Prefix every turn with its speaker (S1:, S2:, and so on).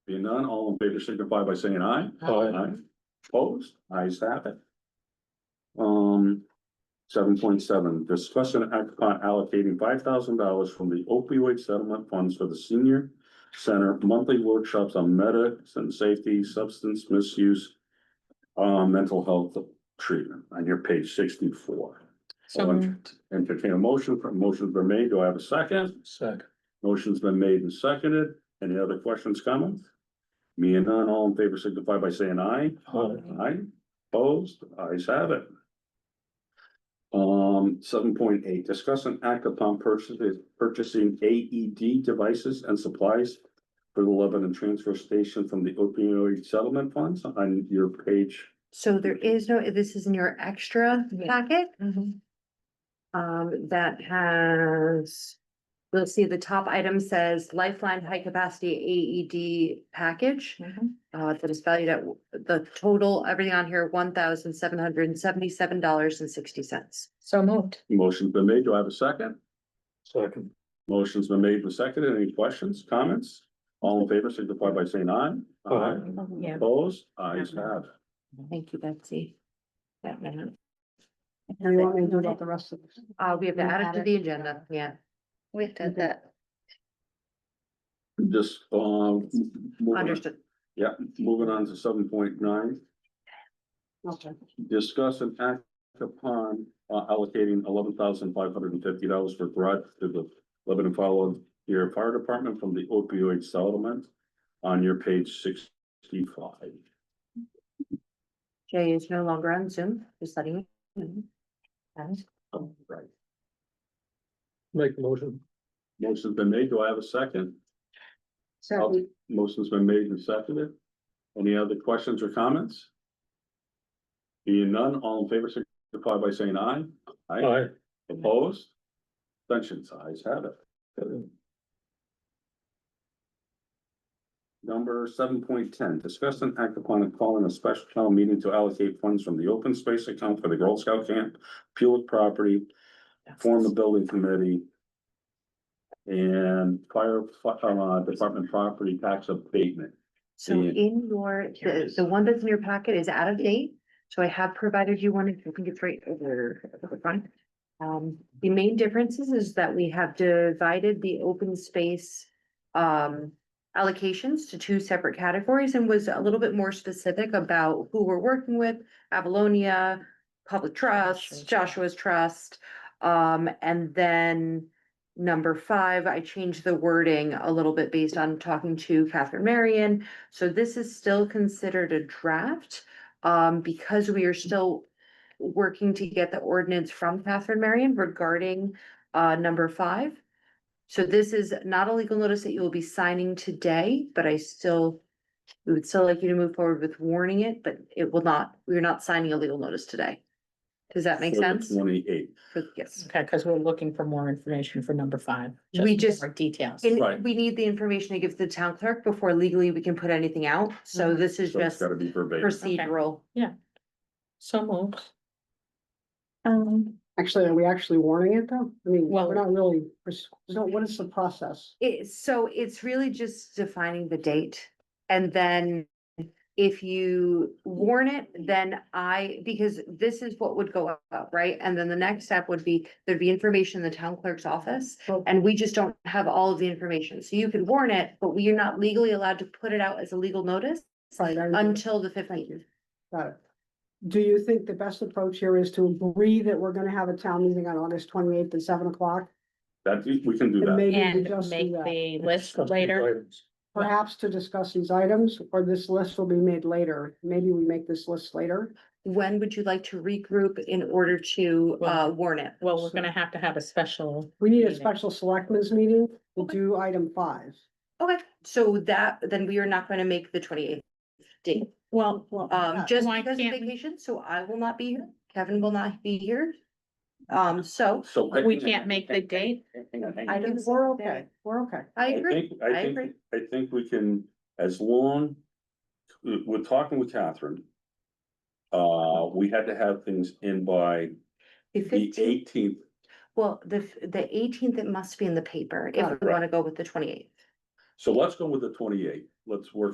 S1: Being none, all in favor signify by saying aye. Aye. Opposed, ayes have it. Um, seven point seven, discussion and act upon allocating five thousand dollars from the opioid settlement funds for the senior center monthly workshops on medics and safety, substance misuse, uh, mental health treatment on your page sixty-four.
S2: So
S1: All in-
S2: moved.
S1: Entertain a motion, for motion's been made, do I have a second?
S3: Second.
S1: Motion's been made and seconded, any other questions, comments? Me and none, all in favor signify by saying aye.
S3: Aye.
S1: Aye, opposed, ayes have it. Um, seven point eight, discuss an act upon purchasing, purchasing AED devices and supplies. For the Lebanon Transfer Station from the opioid settlement funds on your page.
S4: So there is no, this is in your extra
S2: Yeah.
S4: packet,
S2: Mhm.
S4: um, that has. You'll see the top item says Lifeline High Capacity AED Package,
S2: Mhm.
S4: uh, that is valued at the total, everything on here, one thousand seven hundred and seventy-seven dollars and sixty cents.
S2: So moved.
S1: Motion's been made, do I have a second?
S3: Second.
S1: Motion's been made and seconded, any questions, comments? All in favor, signify by saying aye.
S3: Aye.
S2: Yeah.
S1: Opposed, ayes have. it.
S4: Thank you, Betsy. That minute.
S5: And you want me to do about the rest of this?
S4: Uh, we have to
S5: We
S4: add it
S5: add
S4: to
S5: it
S4: the
S5: to
S4: agenda, yeah. Mm-hmm.
S2: We did that.
S1: Just, um. moving on-
S4: Understood.
S1: Yeah, moving on to seven point nine.
S5: Okay.
S1: discuss and act upon uh, allocating eleven thousand five hundred and fifty dollars for garage to the Lebanon Volunteer Fire Department from the opioid settlement on your page sixty-five.
S4: Jay is no longer on Zoom, just letting you. know. And
S1: Right.
S3: Make the motion.
S1: Motion's been made. Do I have a second?
S5: Second,
S1: Motion's been made and seconded. Any other questions or comments? Being none, all in favor signify by saying aye.
S3: Aye.
S1: Opposed? Abstentions, ayes have it. Number seven point ten, discuss and act upon calling a special town meeting to allocate funds from the open space account for the Girl Scout camp, Pulitz property, form the building committee. And fire, uh, department property tax abatement.
S4: So
S1: Yeah.
S4: in your,
S3: Here it
S4: the,
S3: is.
S4: the one that's in your packet is out of date, so I have provided you one, if you can get right over the front. Um, the main differences is that we have divided the open space. Um, allocations to two separate categories and was a little bit more specific about who we're working with. Avalonia, Public Trust, Joshua's Trust, um, and then. Number five, I changed the wording a little bit based on talking to Catherine Marion. So this is still considered a draft, um, because we are still working to get the ordinance from Catherine Marion regarding, uh, number five. So this is not a legal notice that you will be signing today, but I still, we would still like you to move forward with warning it, but it will not, we're not signing a legal notice today. Does that make sense?
S1: Twenty-eight.
S4: For- Yes.
S2: Okay, because we're looking for more information for number five.
S4: We just-
S2: More details.
S1: Right.
S4: And we need the information to give to the town clerk before legally we can put anything out, so
S2: Mhm.
S4: this is
S1: So it's
S4: just
S1: gotta be verbatim.
S4: procedural.
S2: So moved.
S5: um, actually, are we actually warning it though? I mean,
S2: Well-
S5: we're not really, pers- so what is the process?
S4: It, so it's really just defining the date. And then if you warn it, then I, because this is what would go up, right? And then the next step would be, there'd be information in the town clerk's office.
S5: Well-
S4: And we just don't have all of the information. So you could warn it, but we are not legally allowed to put it out as a legal notice
S5: Right, I-
S4: until the
S5: Thank you.
S4: fifteenth.
S5: Got it. Do you think the best approach here is to agree that we're gonna have a town meeting on August twenty eighth at seven o'clock?
S1: That, we can do
S5: And
S1: that.
S5: maybe we
S2: And
S5: just
S2: make
S5: do that,
S2: the list later.
S5: perhaps to discuss these items, or this list will be made later. Maybe we make this list later.
S4: When would you like to regroup in order to, uh,
S2: Well-
S4: warn it?
S2: Well, we're gonna have to have a special.
S5: We need a
S2: Meeting.
S5: special selectmen's meeting to
S4: Okay.
S5: do item five.
S4: Okay, so that, then we are not gonna make the twenty-eighth date.
S2: Well,
S5: Well,
S4: Um, just
S2: why
S4: because of
S2: can't we-
S4: vacation, so I will not be here, Kevin will not be here. Um, so
S1: So. I
S2: we
S1: think-
S2: can't make the date.
S1: Hang on, hang on.
S4: I don't.
S5: We're okay, we're okay.
S4: I
S1: I
S4: agree,
S1: think, I
S4: agree.
S1: think, I think we can, as long, we- we're talking with Catherine. Uh, we had to have things in by the
S4: the fifteenth,
S1: eighteenth,
S4: well, the, f- the eighteenth, it must be in the paper if
S5: Right.
S4: we wanna go with the twenty-eighth.
S1: so let's go with the twenty-eighth, let's work